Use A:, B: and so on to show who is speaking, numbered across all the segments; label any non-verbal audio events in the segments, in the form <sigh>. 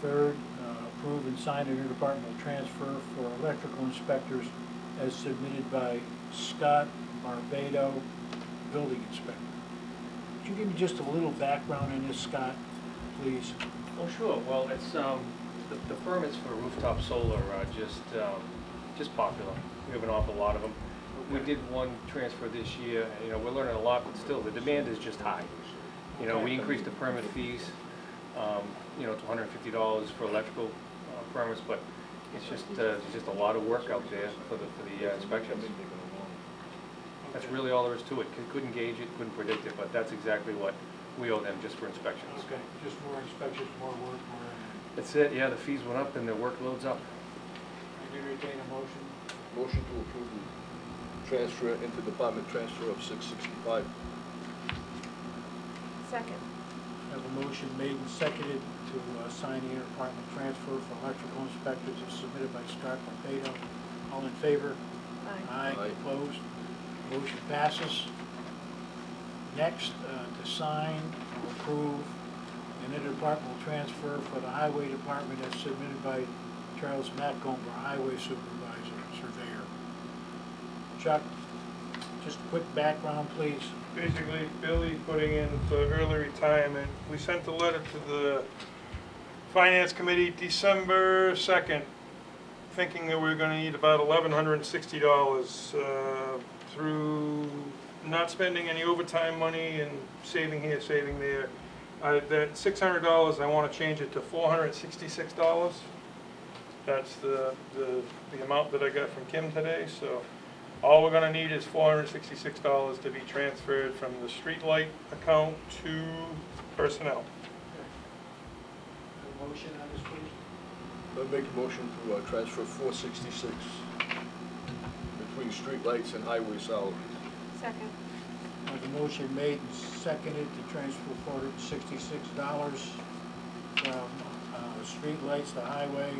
A: Third, uh, approve and sign an interdepartmental transfer for electrical inspectors as submitted by Scott Barbado, building inspector. Could you give me just a little background on this, Scott, please?
B: Oh, sure, well, it's, um, the, the permits for rooftop solar are just, um, just popular. We have an awful lot of them. We did one transfer this year, and, you know, we're learning a lot, but still, the demand is just high. You know, we increased the permit fees, um, you know, to hundred and fifty dollars for electrical uh, permits, but it's just, uh, it's just a lot of work out there for the, for the uh, inspections. That's really all there is to it. Cou- Couldn't gauge it, couldn't predict it, but that's exactly what we owe them, just for inspections.
A: Okay, just more inspections, more work, more,
B: That's it, yeah, the fees went up and the workload's up.
A: I entertain a motion.
C: Motion to approve the transfer, interdepartment transfer of six sixty-five.
D: Second.
A: I Have a motion made and seconded to uh, sign the interdepartmental transfer for electrical inspectors as submitted by Scott Barbado. All in favor?
D: Aye.
A: Aye,
C: Aye.
A: opposed, motion passes. Next, uh, to sign or approve an interdepartmental transfer for the highway department as submitted by Charles Matcomber, highway supervisor, surveyor. Chuck, just a quick background, please.
E: basically Billy putting in for early retirement. We sent a letter to the Finance Committee December second, thinking that we were gonna need about eleven hundred and sixty dollars, uh, through not spending any overtime money and saving here, saving there. I, that six hundred dollars, I wanna change it to four hundred and sixty-six dollars. That's the, the, the amount that I got from Kim today, so. All we're gonna need is four hundred and sixty-six dollars to be transferred from the streetlight account to personnel.
A: A Motion on this, please.
C: I make a motion to uh, transfer four sixty-six between streetlights and highway salaries.
D: Second.
A: I have a motion made and seconded to transfer four hundred and sixty-six dollars from, uh, streetlights to highway.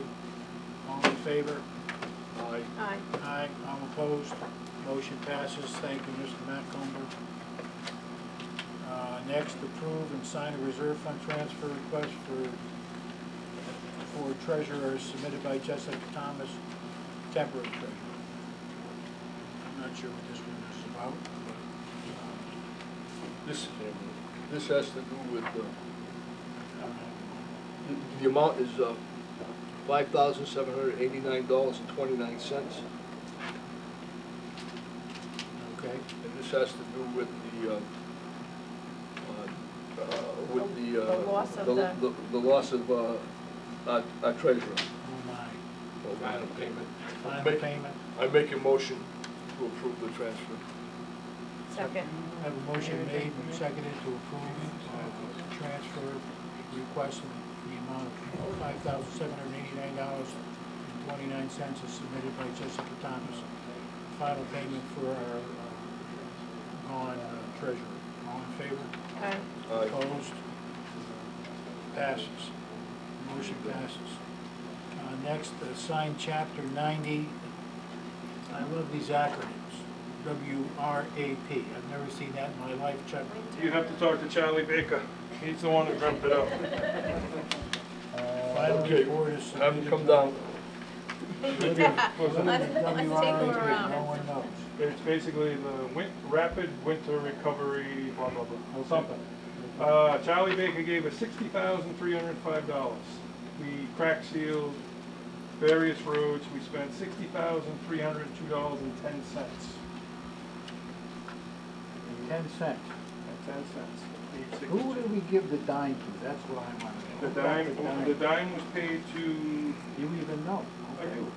A: All in favor?
C: Aye.
D: Aye.
A: Aye, all opposed, motion passes, thank you, Mr. Macomber. Uh, next, approve and sign a reserve fund transfer request for, for treasurer submitted by Jessica Thomas, temporary treasurer. I'm not sure what this one is about, uh, but,
C: This, this has to do with, uh,
A: um, I don't know.
C: the- the amount is, uh, five thousand seven hundred eighty-nine dollars and twenty-nine cents.
A: okay,
C: And this has to do with the, uh, uh, uh, with the, uh.
D: The loss of the-
C: The, the loss of, uh, our- our treasurer.
A: oh my,
C: Final payment.
A: final payment.
C: I make a motion to approve the transfer.
D: Second.
A: I have a motion made and seconded to approve uh, the transfer request in the amount of five thousand seven hundred eighty-nine dollars and twenty-nine cents as submitted by Jessica Thomas. Final payment for our uh, gone uh, treasurer. All in favor?
D: Aye.
C: Aye.
A: Opposed? Passes. Motion passes. Uh, Next, uh, sign chapter ninety. I love these acronyms. W R A P. I've never seen that in my life, Chuck.
E: You have to talk to Charlie Baker. He's the one who dreamt
A: <laughs>
E: it up.
A: Final
C: Okay,
A: report is
C: Have him
A: submitted
C: come
A: by-
C: down.
D: <laughs> Let's- let's take him
A: WRAP,
D: around.
A: No one knows.
E: It's basically the win- rapid winter recovery, blah, blah, blah, or something. Uh, Charlie Baker gave us sixty thousand, three hundred and five dollars. We crack sealed various roads. We spent sixty thousand, three hundred and two dollars and ten cents.
A: Ten cents.
E: And ten cents. Eight sixty-two.
A: Who did we give the dime to? That's what I want to
E: The
A: know.
E: dime, um, the dime was paid to,
A: You even know?
E: I
A: Okay.
E: do,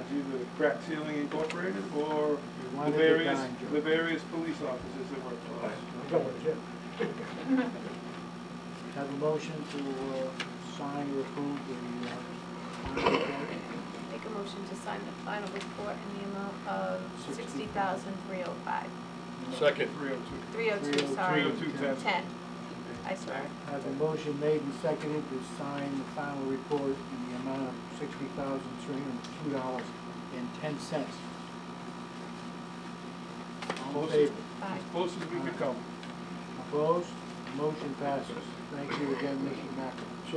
E: it's either Crack Sealing Incorporated or the
A: wanted the
E: various,
A: dime, Joe.
E: the various police officers that worked for us.
A: Have a motion to uh, sign or approve the, uh, report.
D: Make a motion to sign the final report in the amount of sixty thousand three oh five,
C: Second.
E: Three oh two.
D: three oh two, sorry.
E: 302, ten.
D: Ten. I swear.
A: have a motion made and seconded to sign the final report in the amount of sixty thousand, three hundred and two dollars and ten cents. All in favor?
D: Aye.
E: As close as we could come.
A: Opposed? Motion passes. Thank you again, Mr. Mackin.